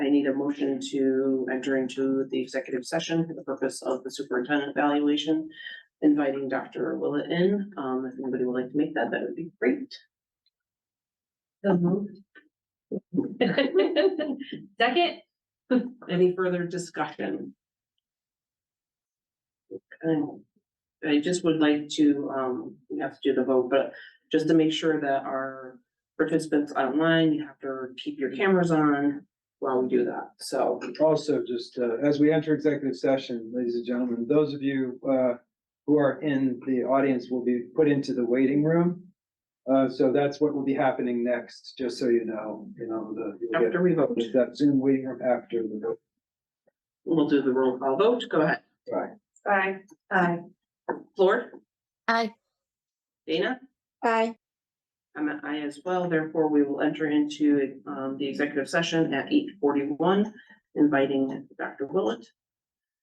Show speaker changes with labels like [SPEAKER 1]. [SPEAKER 1] need a motion to enter into the executive session for the purpose of the superintendent evaluation. Inviting Dr. Willett in, um, if anybody would like to make that, that would be great.
[SPEAKER 2] So moved. Second,
[SPEAKER 1] Any further discussion? And I just would like to, um, we have to do the vote, but just to make sure that our participants online, you have to keep your cameras on while we do that, so.
[SPEAKER 3] Also, just uh, as we enter executive session, ladies and gentlemen, those of you uh, who are in the audience will be put into the waiting room. Uh, So that's what will be happening next, just so you know, you know, the, you'll get-
[SPEAKER 1] After we vote,
[SPEAKER 3] there's that Zoom waiting room after the.
[SPEAKER 1] we'll do the roll call vote, go ahead.
[SPEAKER 3] Right.
[SPEAKER 1] Aye. Aye. Floor?
[SPEAKER 4] Aye.
[SPEAKER 1] Dana?
[SPEAKER 4] Aye.
[SPEAKER 1] I'm an aye as well, therefore we will enter into, um, the executive session at eight forty-one, inviting Dr. Willett